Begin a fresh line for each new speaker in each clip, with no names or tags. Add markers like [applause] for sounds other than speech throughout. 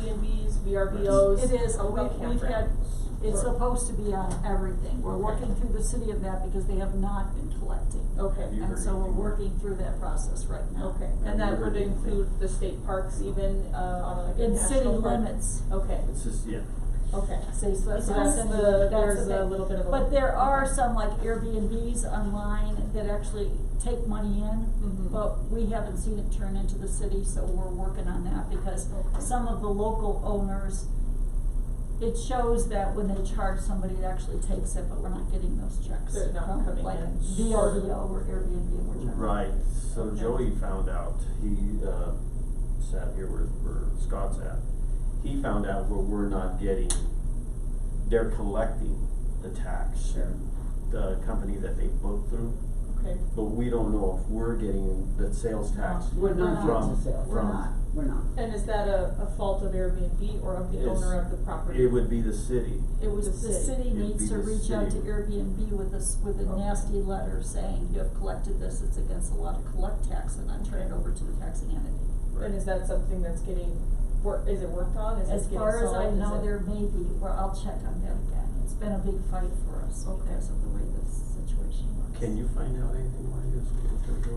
Airbnbs, VRBOs.
It is,
How about
we, we've had,
campgrounds?
it's
Or-
supposed to be on everything, we're
Okay.
working through the city of that because they have not been collecting.
Okay.
Have Oh, you
And
heard
so we're
anything?
working through that process right now.
Okay,
Have
and that
you
would
heard anything?
include the state parks even, uh, on like a
In
national
city
park?
limits.
Okay,
It's just, yeah.
okay.
See, so that's
So
what I'm
that's
saying,
the-
that's
there's
the
a
thing.
little bit of a-
But there are
okay.
some like Airbnbs online that actually take money in,
Mhm.
but we haven't seen it turn into the city, so we're working on that because
Okay.
some of the local owners, it shows that when they charge somebody, it actually takes it, but we're not getting those checks.
They're not
from,
coming
like
in.
VRBO or Airbnb, we're charging.
Right, so Joey found out, he, uh, sat here where, where Scott's at. He found out where we're not getting, they're collecting the tax,
Sure,
the company that they book through,
okay.
but we don't know if we're getting the sales tax.
No,
We're not
from-
getting the sales.
We're
from-
not.
We're not.
And is that a, a fault of Airbnb or of the
It's-
owner of the property?
It would be the city.
It was
The city
It'd
needs
be
to
the
reach out to
city.
Airbnb with us, with a
Okay.
nasty letter saying, you have collected this, it's against the law to collect tax, and then turn it over to the taxing entity.
And is that something that's getting, wor- is it worked on? Is it
As
getting
far as I
solved? Is
know,
it-
there may be, well, I'll check on that again, it's been a big fight for us
Okay.
because of the way this situation works.
Can you find out anything why this?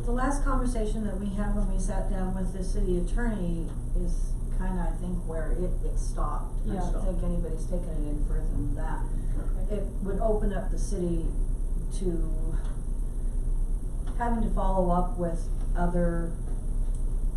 The last um, conversation that we had when we sat down with the city attorney is kinda, I think, where it, it stopped. I
Yeah.
don't think anybody's taken it any further than that.
Okay.
It would open up the city to having to follow up with other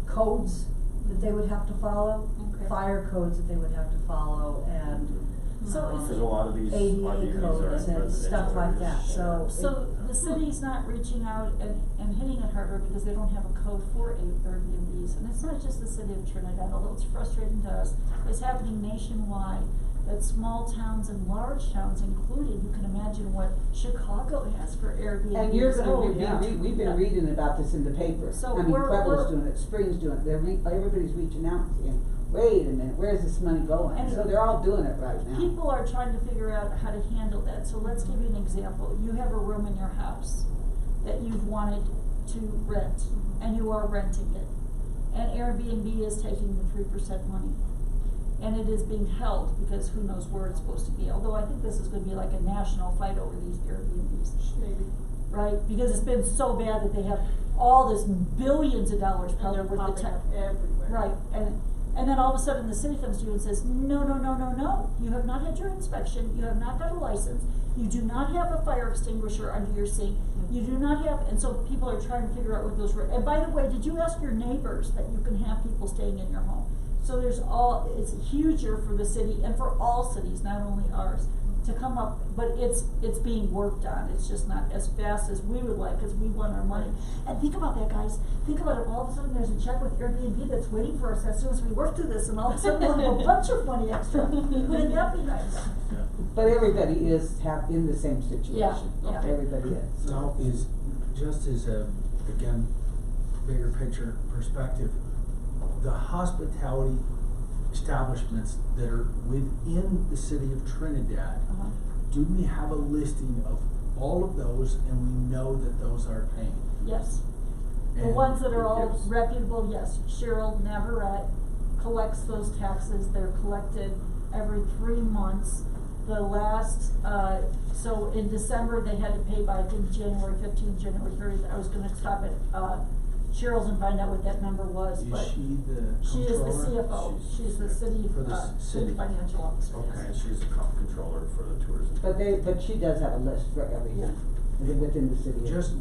codes that they would have to follow.
Okay.
Fire codes that they would have to follow
Mm-hmm.
and
So
Um,
is
Cause
it?
Uh, a lot of these, a lot of these
ADA
are in
codes and stuff
residential
like that,
areas.
so. it-
So the city's not reaching out and, and hitting it harder because they don't have a code for A- Airbnbs. And it's not just the city of Trinidad, although it's frustrating to us, it's happening nationwide. That small towns and large towns included, you can imagine what Chicago has for Airbnbs.
And you're
Oh,
gonna,
yeah.
we, we, we've
Yeah.
been reading about this in the paper.
So
I mean,
we're-
Pueblo's
we're-
doing it, Spring's doing it, they're re, everybody's reaching out and saying, wait a minute, where's this money going?
And-
So they're all doing it right now.
People are trying to figure out how to handle that, so let's give you an example, you have a room in your house that you've wanted to rent, and you are renting it. And Airbnb is taking the three percent money, and it is being held, because who knows where it's supposed to be, although I think this is gonna be like a national fight over these Airbnbs
Maybe.
right? Because it's been so bad that they have all this billions of dollars
And
probably
they're
worth of
popping
tech.
up everywhere.
Right, and, and then all of a sudden the city comes to you and says, no, no, no, no, no, you have not had your inspection, you have not got a license, you do not have a fire extinguisher under your sink, you do not have, and so people are trying to figure out what those were. And by the way, did you ask your neighbors that you can have people staying in your home? So there's all, it's huger for the city and for all cities, not only ours, to come up, but it's, it's being worked on, it's just not as fast as we would like, cause we want our money. And think about that, guys, think about it, all of a sudden there's a check with Airbnb that's waiting for us as soon as we work through this, and all of a sudden we'll have a bunch of money extra, wouldn't that be nice? Uh-huh.
Yeah.
But everybody is have, in the same situation.
yeah.
Everybody is.
Now is, just as a, again, bigger picture perspective, the hospitality establishments that are within the city of Trinidad,
Uh-huh.
do we have a listing of all of those and we know that those are paying?
Yes, the
And
ones that are
it
all
gives-
reputable, yes, Cheryl Navarette collects those taxes, they're collected every three months. The last, uh, so in December, they had to pay by, I think, January fifteenth, January thirtieth, I was gonna stop at, uh, Cheryl's and find out what that number was, but.
Is she the
She is the
comptroller?
CFO,
She's-
she's the city,
For the
uh,
s-
city
city.
financial officer, yes.
Okay, she's the comp controller for the tourism.
But they, but she does have a list for everything, within the city. of-
Just-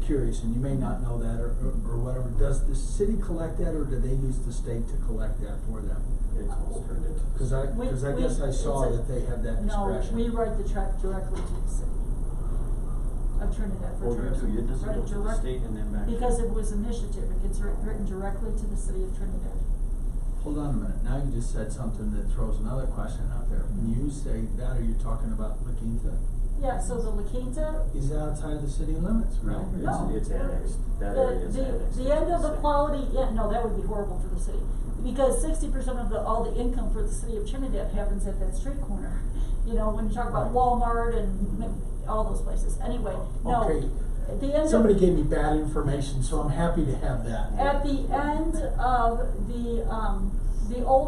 Curious, and you may not know that or, or or whatever, does the city collect that or do they use the state to collect that for them?
It's almost turned into.
Cause I,
We-
cause I
we-
guess I saw
it's a-
that they have that discretion.
No, we write the check directly to the city of Trinidad for
Well, you
tourism.
do, it doesn't
Right,
go to the
direct-
state and then back. to-
Because it was initiative, it gets writ- written directly to the city of Trinidad.
Hold on a minute, now you just said something that throws another question out there. When you say that, are you talking about La Quinta?
Yeah, so the La Quinta,
Is that outside of the city limits,
No,
right?
No.
it's, it's annexed, that area
the,
is
the,
annexed.
the end of the
It's-
quality, yeah, no, that would be horrible for the city. Because sixty percent of the, all the income for the city of Trinidad happens at that street corner. [laughs] You know, when you talk about
Right.
Walmart and m- all those places, anyway, no.
Okay.
At the end of.
Somebody gave me bad information, so I'm happy to have that.
At the end of the, um, the old